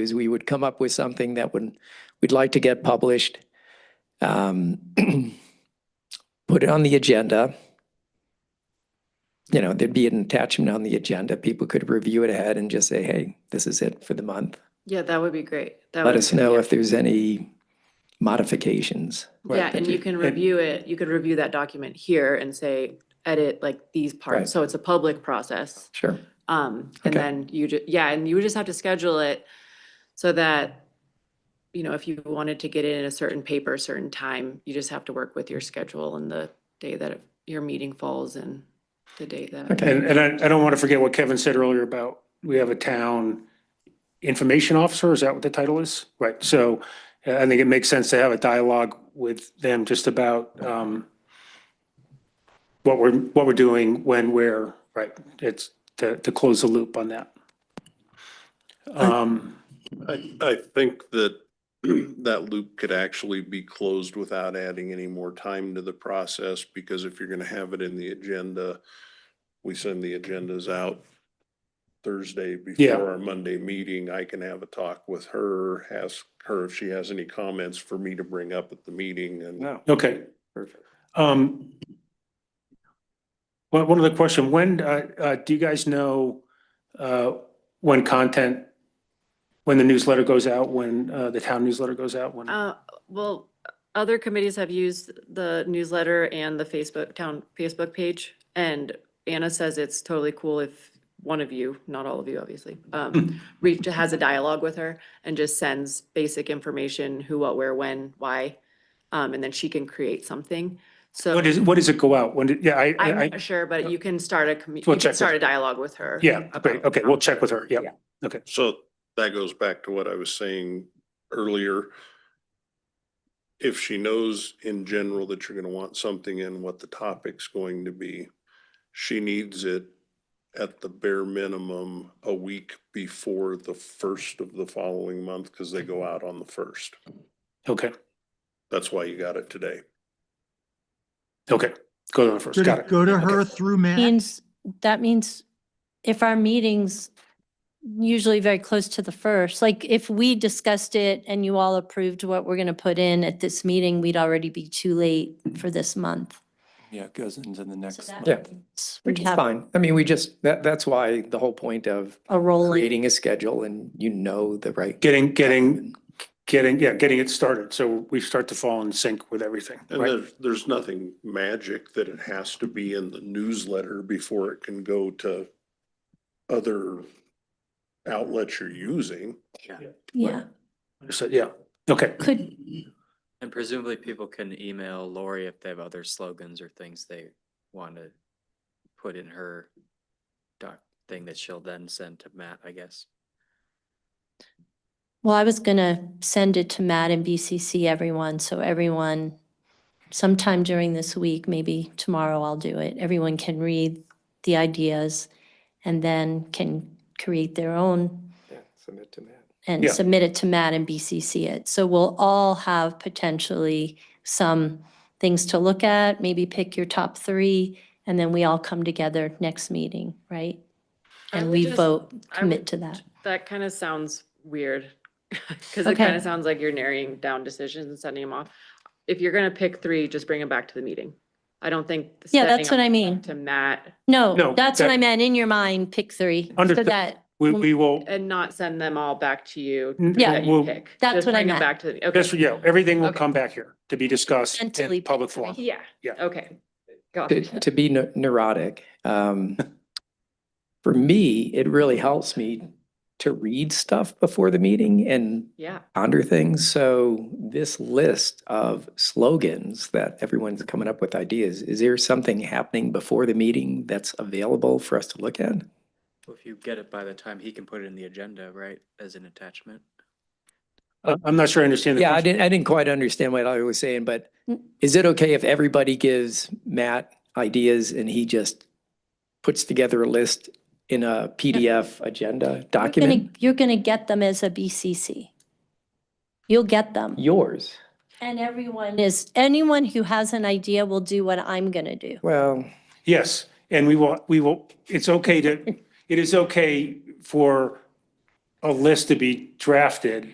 is we would come up with something that would, we'd like to get published. um, Put it on the agenda. You know, there'd be an attachment on the agenda. People could review it ahead and just say, hey, this is it for the month. Yeah, that would be great. That Let would us be- know yeah. if there's any modifications. Yeah, and you can And- review it, you could review that document here and say, edit like these Right. parts, so it's a public process. Sure. Um, and Okay. then you ju- yeah, and you would just have to schedule it so that, you know, if you wanted to get it in a certain paper, a certain time, you just have to work with your schedule and the day that it- your meeting falls and the day that. Okay. And, and I, I don't want to forget what Kevin said earlier about, we have a town information officer, is that what the title is? Right, so uh, I think it makes sense to have a dialogue with them just about, um, what we're, what we're doing, when, where, right, it's to, to close the loop on that. Um, I, I think that that loop could actually be closed without adding any more time to the process, because if you're gonna have it in the agenda, we send the agendas out Thursday Yeah. before our Monday meeting. I can have a talk with her, ask her if she has any comments for me to bring up at the meeting and. No. okay, Perfect. um, one, one other question, when, uh, uh, do you guys know, uh, when content, when the newsletter goes out, when, uh, the town newsletter goes out, when? Uh, well, other committees have used the newsletter and the Facebook, town Facebook page. And Anna says it's totally cool if one of you, not all of you, obviously, um, reach, has a dialogue with her and just sends basic information, who, what, where, when, why. Um, and then she can create something. So What is, what does it go out? When, did- yeah, I, I, I'm I- not sure, but you can start a, commu- We'll you check can with start a dialogue with her. yeah, great, about okay, how- we'll check with her, yeah. Yeah. So that goes back to what I was saying earlier. If she knows in general that you're gonna want something in what the topic's going to be, she needs it at the bare minimum a week before the first of the following month, because they go out on the first. Okay, That's why you got it today. okay, go to the first, Go got to, it. go to her Okay. through Uh-huh. Matt. means, that means if our meetings usually very close to the first, like if we discussed it and you all approved what we're going to put in at this meeting, we'd already be too late for this month. Yeah, it goes into the So next. that month. Yeah. means Which We'd is have fine. I mean, we just, that, that's why the whole point of a rolling, creating a schedule and you know the right. Getting, getting, getting, yeah, getting it started, so we start to fall in sync with everything, And right? there's, there's nothing magic that it has to be in the newsletter before it can go to other outlets you're using. yeah. So, yeah, okay, Could, And presumably people can email Lori if they have other slogans or things they want to put in her doc thing that she'll then send to Matt, I guess. well, I was going to send it to Matt and BCC everyone, so everyone sometime during this week, maybe tomorrow I'll do it. Everyone can read the ideas and then can create their own Submit to Matt. and Yeah. submit it to Matt and BCC it. So we'll all have potentially some things to look at, maybe pick your top three, and then we all come together next meeting, right? I And would we just- vote, I commit would- to that. That kind of sounds weird, because it Okay. kind of sounds like you're narrowing down decisions and sending them off. If you're gonna pick three, just bring them back to the meeting. I don't think. Yeah, sending that's what them I mean. To Matt No, No, that's what that- I meant. In your mind, pick three. So Understood. that, we, we will, and not send them all back to you. N- Yeah. that you we'll- pick. That's Just what I bring 'em meant. Back to the, this, okay. yeah, everything will Okay. come back here to be discussed Mentally in public forum. Yeah, Yeah. okay. Got To, it. to be neu- neurotic, um, for me, it really helps me to read stuff before the meeting and Yeah, ponder things. So this list of slogans that everyone's coming up with ideas, is there something happening before the meeting that's available for us to look at? If you get it by the time he can put it in the agenda, right, as an attachment. Uh, I'm not sure I understand. the Yeah, I question. didn't, I didn't quite understand what I was saying, but Mm. is it okay if everybody gives Matt ideas and he just puts together a list in a PDF agenda you're gonna, document? you're gonna get them as a BCC. You'll get them. Yours. And everyone is, anyone who has an idea will do what I'm gonna do. Well, Yes, and we will, we will, it's okay to, it is okay for a list to be drafted